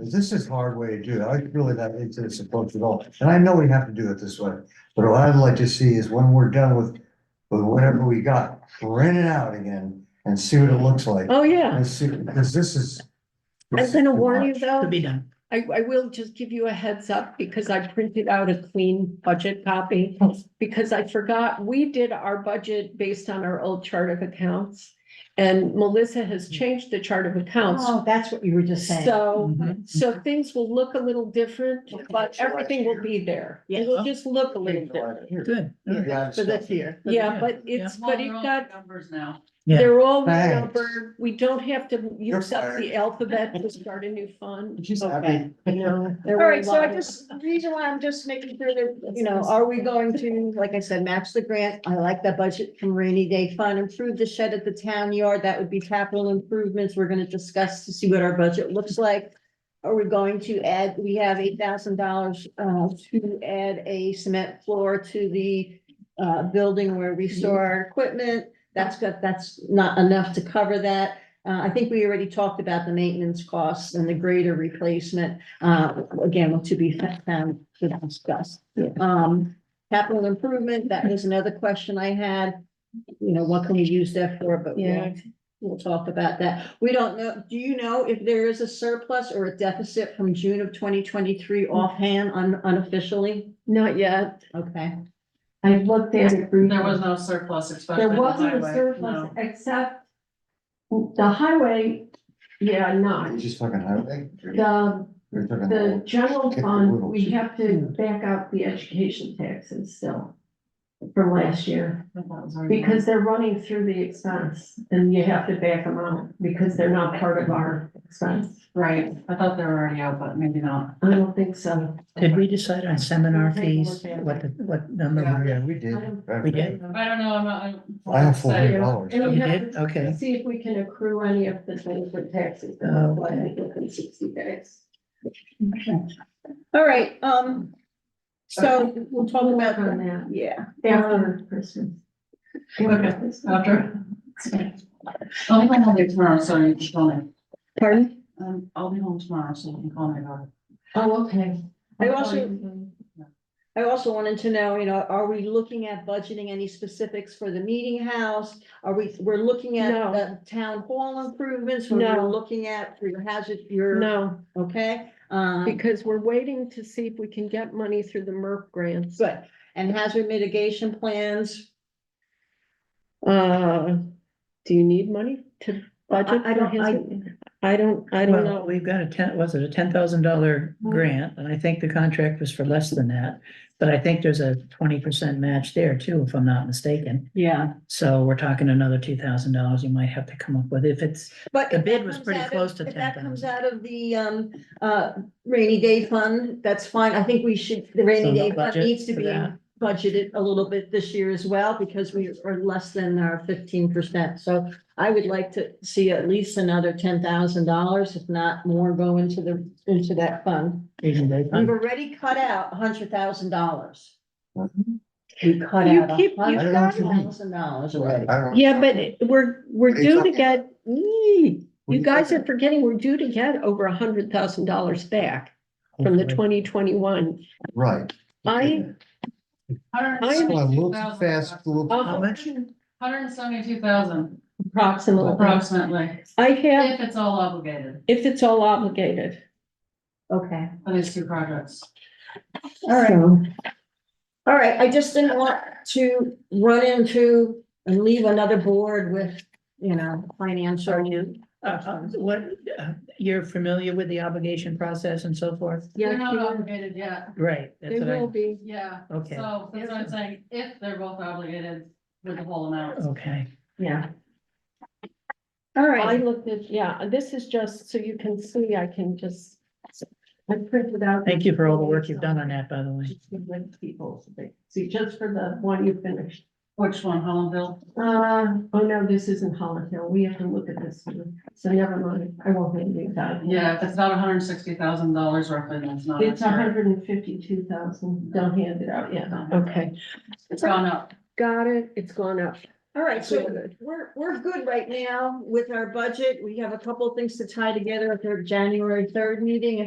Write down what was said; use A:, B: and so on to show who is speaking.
A: This is hard way to do it. I really not into this approach at all. And I know we have to do it this way. But what I'd like to see is when we're done with, with whatever we got, print it out again and see what it looks like.
B: Oh, yeah.
A: And see, because this is.
B: I'm gonna warn you though,
C: to be done.
B: I, I will just give you a heads up because I printed out a clean budget copy. Because I forgot, we did our budget based on our old chart of accounts. And Melissa has changed the chart of accounts.
C: Oh, that's what you were just saying.
B: So,
D: Mm-hmm.
C: Mhm.
B: so things will look a little different,
C: Okay.
B: but everything will be there.
C: Yeah.
B: It'll just look a little different.
C: Good.
A: Yeah,
C: So that's here.
B: Yeah, but it's,
E: Well,
B: but it
E: they're all
B: got,
E: Numbers now.
C: Yeah.
B: they're all
A: Thanks.
B: numbered. We don't have to
A: You're
B: use up
A: fired.
B: the alphabet to start a new fund.
A: She's
C: Okay.
A: happy.
B: I know.
C: All right, so I just, the reason why I'm just making sure that, you know, are we going to, like I said, match the grant? I like the budget from rainy day fund, improve the shed at the town yard, that would be capital improvements, we're gonna discuss to see what our budget looks like. Are we going to add, we have eight thousand dollars, uh, to add a cement floor to the, uh, building where we store our equipment. That's got, that's not enough to cover that. Uh, I think we already talked about the maintenance costs and the greater replacement, uh, again, to be found to discuss. Um, capital improvement, that was another question I had. You know, what can we use that for, but
B: Yeah.
C: we'll, we'll talk about that. We don't know, do you know if there is a surplus or a deficit from June of twenty twenty-three offhand un- unofficially?
B: Not yet.
C: Okay,
F: I looked at it briefly.
E: There was no surplus, especially
F: There
E: in the
F: wasn't a
E: highway.
F: surplus,
E: no.
F: except the highway,
B: Yeah,
A: You're
B: not.
A: just fucking highway.
F: the,
A: You're talking
F: the
A: about-
F: general
A: Get the
F: fund,
A: little-
F: we have to back out the education taxes still from last year,
E: That was already-
F: because they're running through the expense, and you have to back them out, because they're not part of our expense.
E: Right, I thought they were already out, but maybe not.
F: I don't think so.
C: did we decide on seminar fees, what, the what number?
A: Yeah, we did.
C: We did?
E: I don't know, I'm not. I'm-
A: I have four hundred dollars.
F: And we
C: You
F: have
C: did?
F: to
C: Okay.
F: See if we can accrue any of the things for taxes,
C: Oh,
F: like within sixty days.
C: All right, um, so
F: Okay.
C: we'll talk about,
F: Work on that.
C: yeah,
F: After Christmas.
E: Okay, after. I'll be home tomorrow, so you can call me.
C: pardon?
E: Um, I'll be home tomorrow, so you can call me about it.
F: Oh, okay.
C: I also- I also wanted to know, you know, are we looking at budgeting any specifics for the meeting house? Are we, we're looking
B: No.
C: at the town hall improvements, we're
B: No.
C: we're looking at for your hazard, your,
B: No,
C: okay? Um,
B: because we're waiting to see if we can get money through the MERP grants.
C: good, and hazard mitigation plans,
B: Uh, do you need money to budget?
C: I- I
B: for
C: don't- I-
B: hazard? I don't, I don't
D: Well,
B: know. Mm-hmm.
D: we've got a ten, was it a ten thousand dollar grant, and I think the contract was for less than that. But I think there's a twenty percent match there too, if I'm not mistaken.
C: yeah,
D: So we're talking another two thousand dollars you might have to come up with if it's,
C: but.
D: The
C: if
D: bid
C: that
D: was
C: comes
D: pretty
C: out of-
D: close to
C: If that comes
D: 10,000.
C: out of the, um, uh, rainy day fund, that's fine, I think we should, the
D: So
C: rainy
D: no
C: day fund
D: budget
C: needs to
D: for
C: be
D: that?
C: budgeted a little bit this year as well, because we are less than our fifteen percent, so I would like to see at least another ten thousand dollars, if not more, go into the, into that fund.
D: even they,
C: We've already cut out hundred thousand dollars.
A: Mhm.
C: We cut
B: You
C: out
B: keep- you
C: hundred
A: got-
C: thousand dollars already.
A: I don't-
B: Yeah, but it- we're, we're
A: What are you
B: due to
A: talking
B: get, Eee,
A: What are
B: you
A: you
B: guys
A: talking
B: are forgetting, we're due to get over a hundred thousand dollars back from the twenty twenty-one.
A: Right.
B: I,
A: So I looked
E: 172,000.
A: fast, looked-
D: How much?
E: Hundred and seventy-two thousand
C: Approximately.
E: approximately,
B: I have,
E: if it's all obligated,
B: if it's all obligated.
C: Okay,
E: for these two projects.
C: all right.
B: So-
C: All right, I just didn't want to run into and leave another board with, you know, financial.
D: uh, uh, what, uh, you're familiar with the obligation process and so forth?
E: They're not
B: Yeah,
E: obligated yet,
D: Right, that's
B: they
D: what
B: will
D: I,
B: be.
E: yeah,
D: okay,
E: so that's what I'm saying, if they're both obligated with the whole amount.
D: okay.
C: Yeah. All
B: I
C: right,
B: looked at, yeah, this is just so you can see, I can just. I printed out.
D: Thank you for all the work you've done on that, by the way.
F: People, see, just for the one you finished.
E: Which one, Hollandville?
F: Uh, oh no, this isn't Holland Hill. We have to look at this one. So never mind. I won't leave you that.
E: Yeah, if it's not hundred and sixty thousand dollars roughly, then it's not.
F: It's
E: accurate.
F: hundred and fifty-two thousand. Don't hand it out yet.
E: Yeah,
B: Okay,
E: It's gone up.
B: got it, it's gone up.
C: All right, so we're, we're good right now with our budget. We have a couple of things to tie together with our January third meeting.